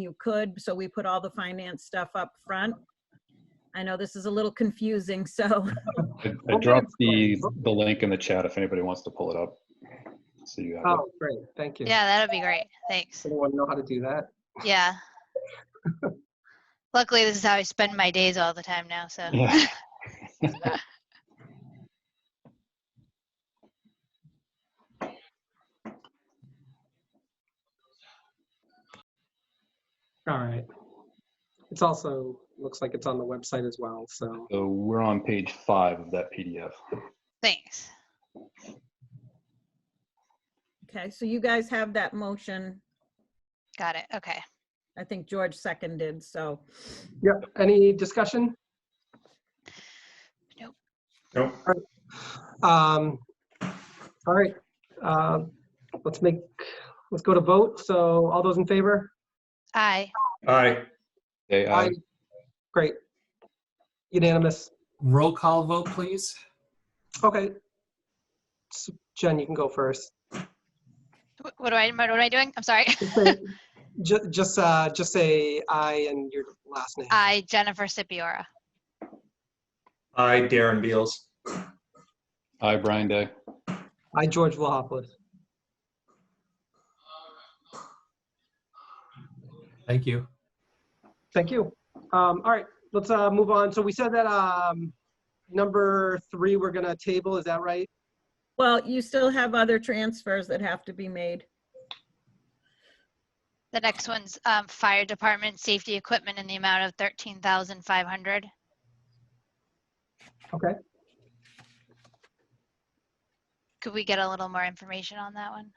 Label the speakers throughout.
Speaker 1: you could, so we put all the finance stuff up front. I know this is a little confusing, so,
Speaker 2: I I dropped the, the link in the chat if anybody wants to pull it up. So you have it.
Speaker 3: Oh, great, thank you.
Speaker 4: Yeah, that'd be great. Thanks.
Speaker 3: Anyone know how to do that?
Speaker 4: Yeah. Luckily, this is how I spend my days all the time now, so.
Speaker 2: Yeah.
Speaker 3: All right. It's also, looks like it's on the website as well, so.
Speaker 2: So we're on page five of that PDF.
Speaker 4: Thanks.
Speaker 1: okay, so you guys have that motion.
Speaker 4: Got it. Okay.
Speaker 1: I think George seconded, so,
Speaker 3: Yep, any discussion?
Speaker 4: Nope.
Speaker 5: Nope.
Speaker 3: Um, all right, uh, let's make, let's go to vote. So all those in favor?
Speaker 4: Aye.
Speaker 5: Aye.
Speaker 2: Okay, I,
Speaker 3: Great. Unanimous.
Speaker 6: Roll call vote, please.
Speaker 3: Okay. So, Jen, you can go first.
Speaker 4: Wh- What do I, what am I doing? I'm sorry.
Speaker 3: Just say- ju- Just, uh, just say I and your last name.
Speaker 4: Aye, Jennifer Sipiora.
Speaker 5: Aye, Darren Beals.
Speaker 2: I, Brian Day.
Speaker 3: I, George Wilhopwood.
Speaker 6: Thank you.
Speaker 3: Thank you. Um, all right, let's, uh, move on. So we said that, um, number three, we're gonna table, is that right?
Speaker 1: well, you still have other transfers that have to be made.
Speaker 4: The next one's um, fire department safety equipment in the amount of 13,500.
Speaker 3: Okay.
Speaker 4: Could we get a little more information on that one?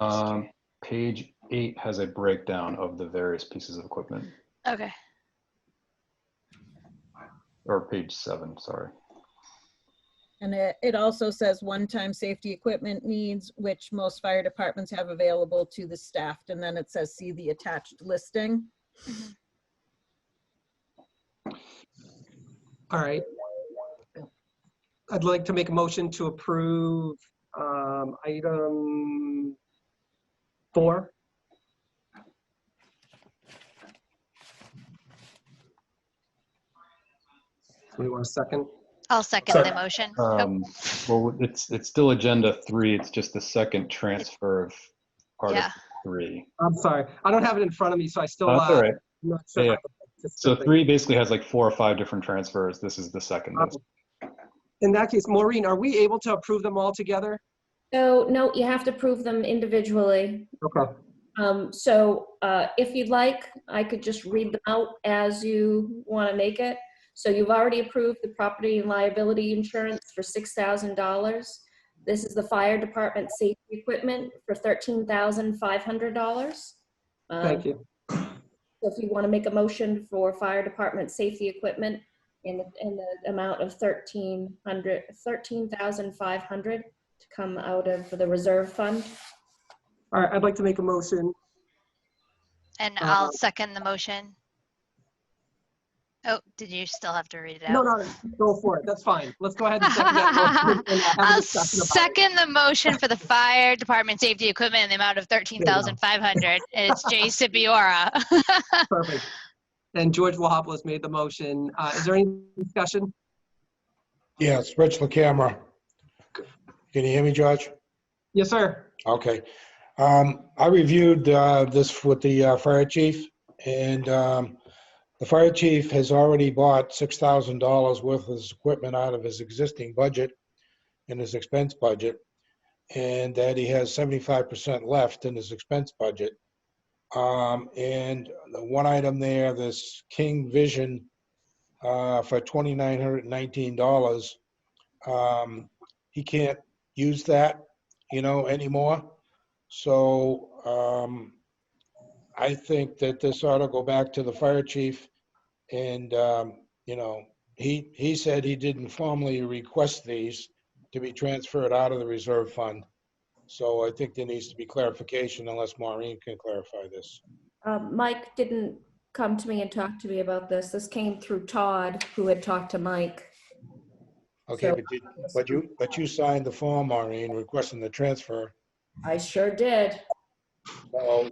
Speaker 2: Um, page eight has a breakdown of the various pieces of equipment,
Speaker 4: Okay.
Speaker 2: or page seven, sorry.
Speaker 1: And it, it also says one-time safety equipment needs, which most fire departments have available to the staff. And then it says, see the attached listing.
Speaker 3: All right. I'd like to make a motion to approve um, item four. Somebody want a second?
Speaker 4: I'll second the
Speaker 5: Second.
Speaker 4: motion. Oh,
Speaker 2: Um, well, it's, it's still agenda three, it's just the second transfer of Article
Speaker 4: Yeah.
Speaker 2: three.
Speaker 3: I'm sorry, I don't have it in front of me, so I still.
Speaker 2: No, That's
Speaker 3: uh,
Speaker 2: all right.
Speaker 3: I'm not
Speaker 2: Yeah,
Speaker 3: sure.
Speaker 2: yeah. So three basically has like four or five different transfers. This is the second.
Speaker 3: Um, In that case, Maureen, are we able to approve them all together?
Speaker 7: So, no, you have to prove them individually.
Speaker 3: Okay.
Speaker 7: Um, So uh, if you'd like, I could just read them out as you want to make it. So you've already approved the property and liability insurance for $6,000. This is the fire department safety equipment for $13,500. Um,
Speaker 3: Thank you.
Speaker 7: So if you want to make a motion for fire department safety equipment in the, in the amount of thirteen hundred, thirteen thousand five hundred to come out of the reserve fund.
Speaker 3: All right, I'd like to make a motion.
Speaker 4: And
Speaker 3: uh,
Speaker 4: I'll second the motion. Oh, did you still have to read it out?
Speaker 3: No, no, go for it, that's fine. Let's go ahead and second that. motion and have a
Speaker 4: I'll
Speaker 3: discussion about it.
Speaker 4: second the motion for the fire department safety equipment in the amount of
Speaker 3: go.
Speaker 4: thirteen thousand five hundred. It's Jay Sipiora.
Speaker 3: Perfect. And George Wahopolis made the motion. Uh, Is there any discussion?
Speaker 8: Yes, Rich the camera. Can you hear me, George?
Speaker 3: Yes, sir.
Speaker 8: Okay. Um, I reviewed uh, this with the uh, fire chief, and um, the fire chief has already bought $6,000 worth of his equipment out of his existing budget in his expense budget, and that he has 75% left in his expense budget. Um, And the one item there, this King Vision uh, for $2,919, um, he can't use that you know, anymore. So um, I think that this ought to go back to the fire chief. And, um, you know, he, he said he didn't formally request these to be transferred out of the reserve fund. So I think there needs to be clarification unless Maureen can clarify this.
Speaker 7: Um, Mike didn't come to me and talk to me about this. This came through Todd, who had talked to Mike.
Speaker 8: Okay,
Speaker 7: So-
Speaker 8: but you, but you, but you signed the form, Maureen, requesting the transfer.
Speaker 7: I sure did.
Speaker 8: So